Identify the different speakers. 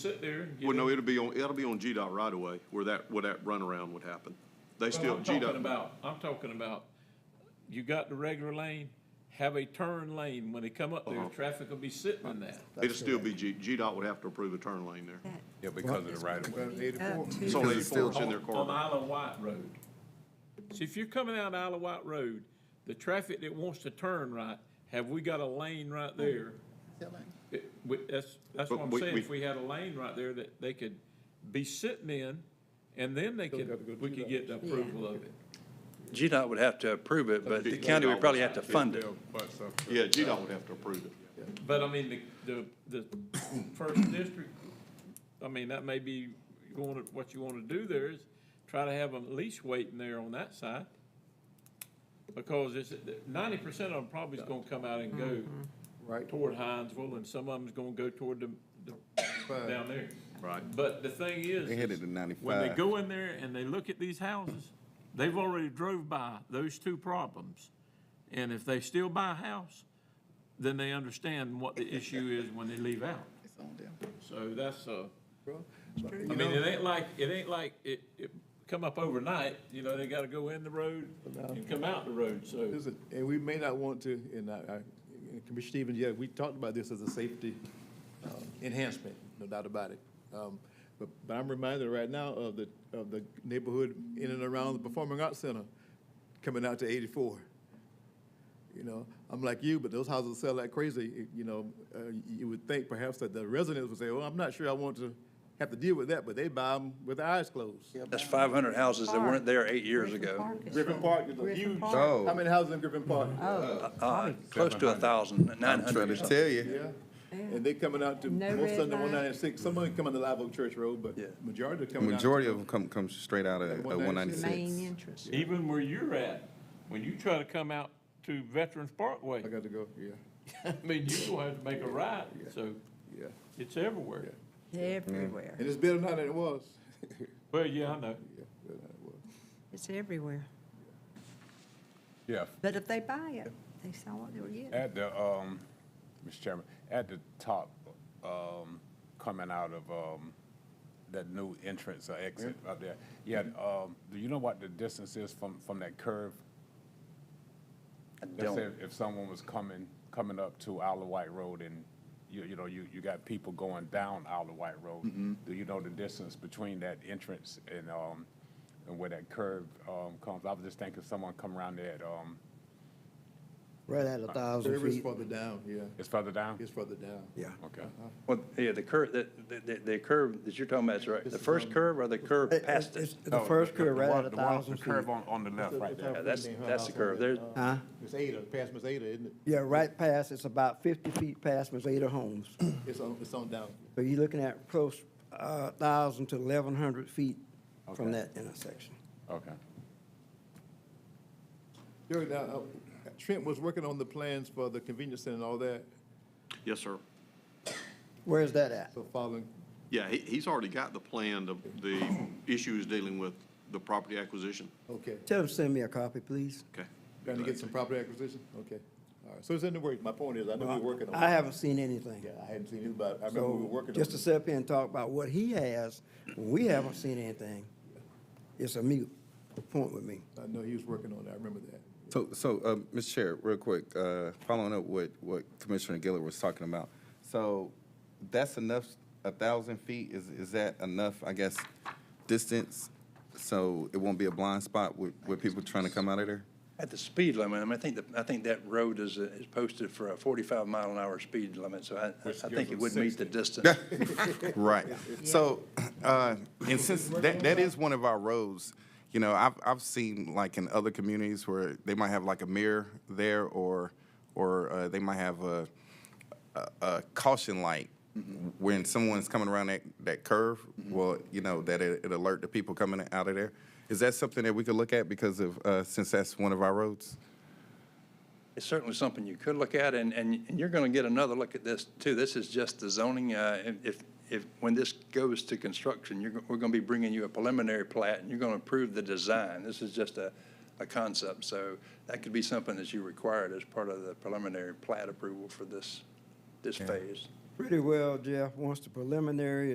Speaker 1: sit there and get
Speaker 2: Well, no,
Speaker 1: it.
Speaker 2: it'll be on, it'll be on GDOT right away where that, where that runaround would happen. They still,
Speaker 1: I'm talking
Speaker 2: GDOT,
Speaker 1: about, I'm talking about, you got the regular lane, have a turn lane. When they come up
Speaker 2: Uh-huh.
Speaker 1: there, traffic will be sitting in that.
Speaker 2: it'll still be G, GDOT would have to approve a turn lane there.
Speaker 3: That
Speaker 4: Yeah, because of the right of way.
Speaker 5: About eighty-four.
Speaker 3: up to-
Speaker 2: It's on
Speaker 4: Because it's
Speaker 2: eighty-four,
Speaker 4: still-
Speaker 2: it's in their
Speaker 1: On
Speaker 2: corridor.
Speaker 1: Isle of White Road. So if you're coming out Isle of White Road, the traffic that wants to turn right, have we got a lane right there? It- we- That's, that's what
Speaker 2: But
Speaker 1: I'm
Speaker 2: we-
Speaker 1: saying.
Speaker 2: we-
Speaker 1: If we had a lane right there that they could be sitting in, and then they could, we could get the approval of it.
Speaker 6: GDOT would have to approve it, but the county would probably have to fund it.
Speaker 2: Yeah, GDOT would have to approve it.
Speaker 1: But I mean, the, the, the first district, I mean, that may be going, to- what you wanna do there is try to have them at least waiting there on that side. Because it's, ninety percent of them probably is gonna come out and go
Speaker 5: Right.
Speaker 1: toward Hinesville, and some of them's gonna go toward the, the, down there.
Speaker 2: Right.
Speaker 1: But the thing is.
Speaker 4: They headed to
Speaker 1: When they
Speaker 4: 95.
Speaker 1: go in there and they look at these houses, they've already drove by those two problems. And if they still buy a house, then they understand what the issue is when they leave out. So that's, uh, I mean, it ain't like, it ain't like it, it come up overnight, you know, they gotta go in the road and come out the road, so.
Speaker 5: Listen, and we may not want to, and I, I, and Commissioner Stevens, yeah, we talked about this as a safety uh, enhancement, no doubt about it. Um, But, but I'm reminded right now of the, of the neighborhood in and around the Performing Arts Center coming out to eighty-four. You know, I'm like you, but those houses sell like crazy, you- you know, uh, you would think perhaps that the residents would say, well, I'm not sure I want to have to deal with that, but they buy them with their eyes closed.
Speaker 6: That's five hundred houses that weren't there eight years
Speaker 3: Griffin
Speaker 6: ago.
Speaker 3: Park is
Speaker 5: Griffin
Speaker 3: full.
Speaker 5: Park is a
Speaker 3: Griffin
Speaker 5: huge-
Speaker 3: Park.
Speaker 5: How
Speaker 4: Oh,
Speaker 5: many houses in Griffin Park?
Speaker 6: Uh, close to a thousand, nine
Speaker 4: I'm trying to
Speaker 6: hundred.
Speaker 4: tell you.
Speaker 5: Yeah, and they coming out to,
Speaker 3: No
Speaker 5: most
Speaker 3: red
Speaker 5: of them
Speaker 3: light.
Speaker 5: one ninety-six, some of them coming to Live Oak Church Road, but
Speaker 6: Yeah.
Speaker 5: majority are
Speaker 4: The
Speaker 5: coming out.
Speaker 4: majority of them come, come straight out of
Speaker 5: Like
Speaker 4: one
Speaker 5: 196.
Speaker 3: Main
Speaker 4: ninety-six.
Speaker 3: entrance.
Speaker 1: Even where you're at, when you try to come out to Veterans Parkway,
Speaker 5: I got to go, yeah,
Speaker 1: I mean, you're gonna have to make a right, so
Speaker 5: yeah,
Speaker 1: it's everywhere.
Speaker 3: It's everywhere.
Speaker 5: and it's better now than it was.
Speaker 1: Well, yeah, I know.
Speaker 5: Yeah, better than it was.
Speaker 3: It's everywhere.
Speaker 7: Yeah,
Speaker 3: But if they buy it, they saw what they were getting.
Speaker 7: at the, um, Mr. Chairman, at the top, um, coming out of, um, that new entrance or exit out there, yeah, um, do you know what the distance is from, from that curve?
Speaker 6: I
Speaker 7: Let's say
Speaker 6: don't.
Speaker 7: if someone was coming, coming up to Isle of White Road and, you, you know, you, you got people going down Isle of White Road. Do you know the distance between that entrance and, um, and where that curve, um, comes? I was just thinking someone come around there at, um,
Speaker 8: Right at a thousand
Speaker 5: Service
Speaker 8: feet.
Speaker 5: further down, yeah,
Speaker 7: it's further down?
Speaker 5: it's further down.
Speaker 8: Yeah.
Speaker 7: Okay.
Speaker 6: Well, yeah, the curve, the, the, the curve that you're talking about is right. The first curve or the curve
Speaker 8: It-
Speaker 6: past
Speaker 8: it's-
Speaker 6: it? Oh,
Speaker 8: it's The first curve right at
Speaker 7: one-
Speaker 8: a
Speaker 7: the one-
Speaker 8: thousand
Speaker 7: The
Speaker 8: feet.
Speaker 7: curve on, on the left, right there.
Speaker 6: Yeah, that's- that's the curve. There's-
Speaker 8: Huh?
Speaker 5: It's Ada, past Miss Ada, isn't it?
Speaker 8: Yeah, right past, it's about fifty feet past Mazada Homes.
Speaker 5: It's on, it's on down.
Speaker 8: So you're looking at close, uh, thousand to eleven hundred feet from that intersection.
Speaker 7: Okay.
Speaker 5: Jerry, now, uh, Trent was working on the plans for the convenience center and all that,
Speaker 2: Yes, sir.
Speaker 8: Where's that at?
Speaker 5: so following,
Speaker 2: Yeah, he, he's already got the plan. The, the issue is dealing with the property acquisition.
Speaker 5: okay,
Speaker 8: Tell them, to send me a copy, please.
Speaker 2: Okay.
Speaker 5: trying to get some property acquisition, okay. All right, so it's in the works, my point is, I know we're working on it.
Speaker 8: I haven't seen anything.
Speaker 5: Yeah, I hadn't seen you, but I remember we were
Speaker 8: So
Speaker 5: working on it.
Speaker 8: just to sit up here and talk about what he has, we haven't seen anything. It's a mute point with me.
Speaker 5: I know he was working on it, I remember that.
Speaker 4: So, so, um, Mr. Chair, real quick, uh, following up what, what Commissioner Gillard was talking about. So that's enough, a thousand feet, is, is that enough, I guess, distance? So it won't be a blind spot with, with people trying to come out of there?
Speaker 6: At the speed limit, I mean, I think that, I think that road is, uh, is posted for a forty-five mile an hour speed limit, so I, I think it would meet the distance.
Speaker 4: Right. So, uh, and since that, that is one of our roads, you know, I've, I've seen like in other communities where they might have like a mirror there or, or, uh, they might have a, a, a caution light when someone's coming around that, that curve, well, you know, that it, it alert the people coming out of there. Is that something that we could look at because of, uh, since that's one of our roads?
Speaker 6: It's certainly something you could look at, and, and and you're going to get another look at this, too. This is just the zoning. uh, If, if- if, when this goes to construction, you're, go- we're going to be bringing you a preliminary plat, and you're going to approve the design. This is just a, a concept, so that could be something that you required as part of the preliminary plat approval for this, this phase.
Speaker 8: Pretty well, Jeff, once the preliminary